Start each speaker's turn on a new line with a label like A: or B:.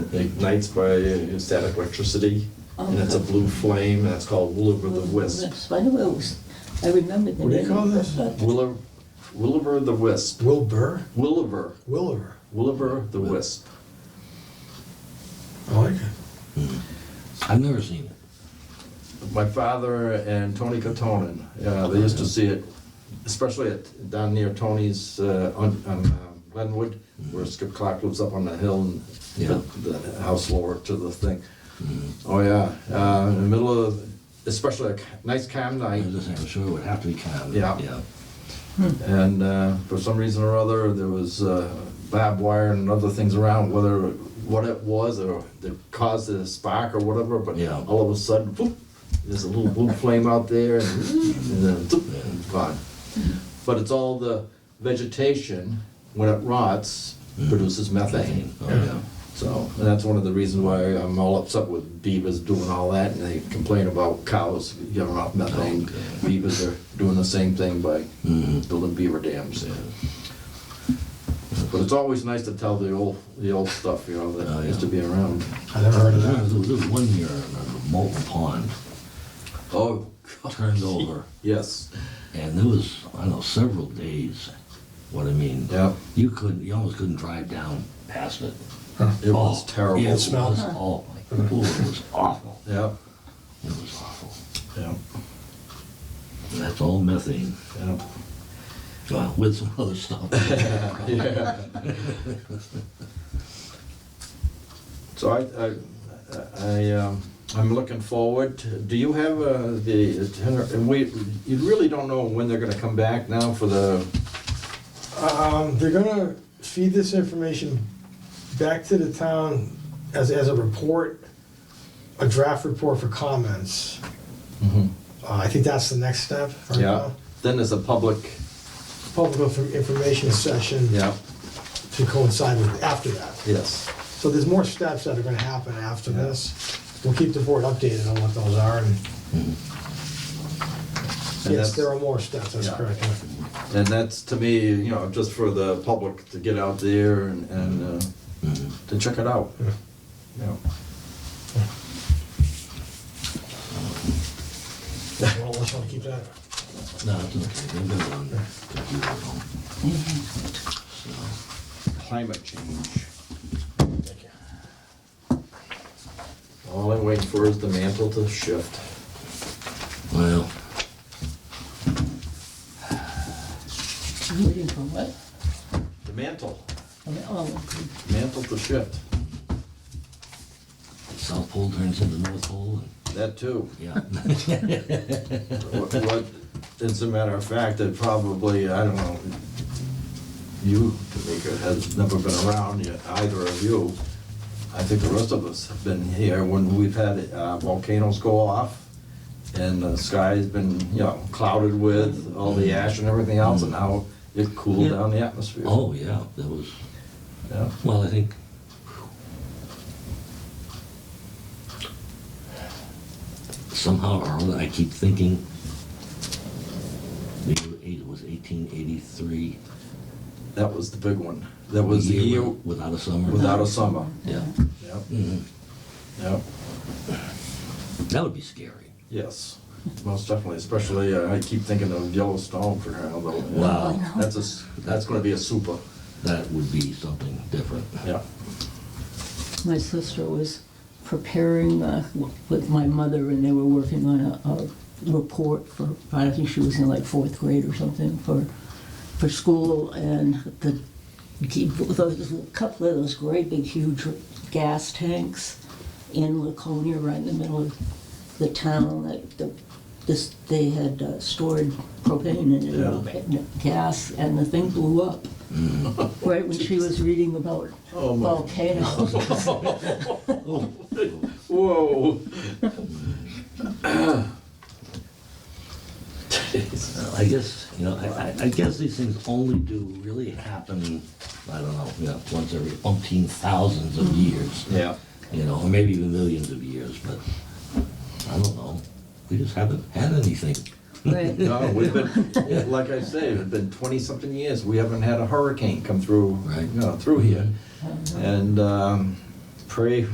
A: ignites by uh, static electricity, and it's a blue flame, and that's called Williver the Wisp.
B: Yes, I know it was, I remembered the
C: What do you
B: name.
C: call this?
A: Williver, Williver the Wisp,
C: Will Burr?
A: Williver,
C: Williver.
A: Williver the Wisp.
C: I like it.
D: I've never seen it.
A: My father and Tony Cotonin, uh, they used to see it, especially at, down near Tony's, uh, on, on um, Glenwood, where Skip Clark lives up on the hill and
D: Yeah.
A: the the house lower to the thing. Oh, yeah, uh, in the middle of, especially a ca- nice calm night,
D: I'm just saying, I'm sure it would have to be counted.
A: Yeah.
D: Hmm.
A: and uh, for some reason or other, there was uh, barbed wire and other things around, whether what it was or that caused the spark or whatever. But
D: Yeah.
A: all of a sudden, boop, there's a little blue flame out there, and, and then zoop, and it's gone.
D: Hmm.
A: But it's all the vegetation when it rots produces methane.
D: Oh, Hmm. yeah.
A: So and that's one of the reasons why I'm all upset with beavers doing all that, and they complain about cows giving off methane.
D: Oh, Okay.
A: Beavers are doing the same thing by
D: Mhm.
A: building beaver dams. But it's always nice to tell the old, the old stuff, you know,
D: Oh,
A: that
D: yeah.
A: used to be around.
C: I never heard of
D: There
C: that.
D: was there was one year, I remember, Molten Pond
A: Oh,
D: turned over,
A: yes,
D: and there was, I don't know, several days, what I mean.
A: yeah,
D: You couldn't, you almost couldn't drive down past it.
A: it was
D: Oh,
A: terrible.
D: yeah,
A: Yeah,
D: It smelled, oh, my, God, it was awful.
A: yeah,
D: It was awful.
A: yeah.
D: And That's all methane, uh, with some other stuff.
A: Yeah. So I, I, I, um, I'm looking forward. to- Do you have uh, the, tenor- and we, you really don't know when they're gonna come back now for the,
C: Um, they're gonna feed this information back to the town as, as a report, a draft report for comments. Uh, I think that's the next step. right
A: yeah?
C: now.
A: Then there's a public,
C: Public inf- information session
A: yeah,
C: to coincide with, after that.
A: yes.
C: So there's more steps that are gonna happen after this. We'll keep the board updated on what those are, and
A: And
C: yes,
A: that's-
C: there are more steps, Mm-hmm. that's
A: Yeah.
C: correct. yeah.
A: And that's, to me, you know, just for the public to get out there and, and uh,
D: Mhm.
A: to check it out.
C: Mm-hmm. Yeah.
A: Yeah.
C: Unless you wanna keep that.
D: No, it's okay, they've been on the computer at home.
A: Climate change. All I'm waiting for is the mantle to shift.
D: Well,
B: Waiting for what?
A: The mantle,
B: I mean, Oh, okay.
A: mantle to shift,
D: South Pole turns into North Pole, and,
A: that too.
D: yeah.
A: What, what- as a matter of fact, it probably, I don't know, you, Tamika, has never been around yet, either of you. I think the rest of us have been here when we've had uh, volcanoes go off and the sky's been, you know, clouded with all the ash and everything else and how it cooled
D: Yeah.
A: down the atmosphere.
D: Oh, yeah, that was,
A: Yeah.
D: well, I think. Somehow or other, I keep thinking, maybe it was eighteen eighty-three.
A: That was the big one. That was the year
D: Without a summer.
A: without a summer.
D: Yeah.
A: Yep,
D: Mhm.
A: yep.
D: That would be scary.
A: Yes, most definitely, especially, uh, I keep thinking of Yellowstone for now, though.
D: Wow.
A: That's a, s- that's gonna be a super,
D: That would be something different.
A: yeah.
B: My sister was preparing uh, w- with my mother, and they were working on a, a report for. I think she was in like fourth grade or something for for school, and the those a couple of those great big huge gas tanks in Laconia, right in the middle of the town. That the, this they had uh, stored propane in it,
A: Yeah.
B: and gas, and the thing blew up. Right when she was reading about
A: Oh, my.
B: volcanoes.
A: Whoa.
D: Uh, I guess, you know, I, I- I guess these things only do really happen, I don't know, you know, once every umpteen thousands of years.
A: Yeah,
D: You know, or maybe even millions of years, but I don't know. We just haven't had anything.
B: Right.
A: no, we've been, like I say, it's been twenty-something years, we haven't had a hurricane come through,
D: Right.
A: you know, through here. And, um, pray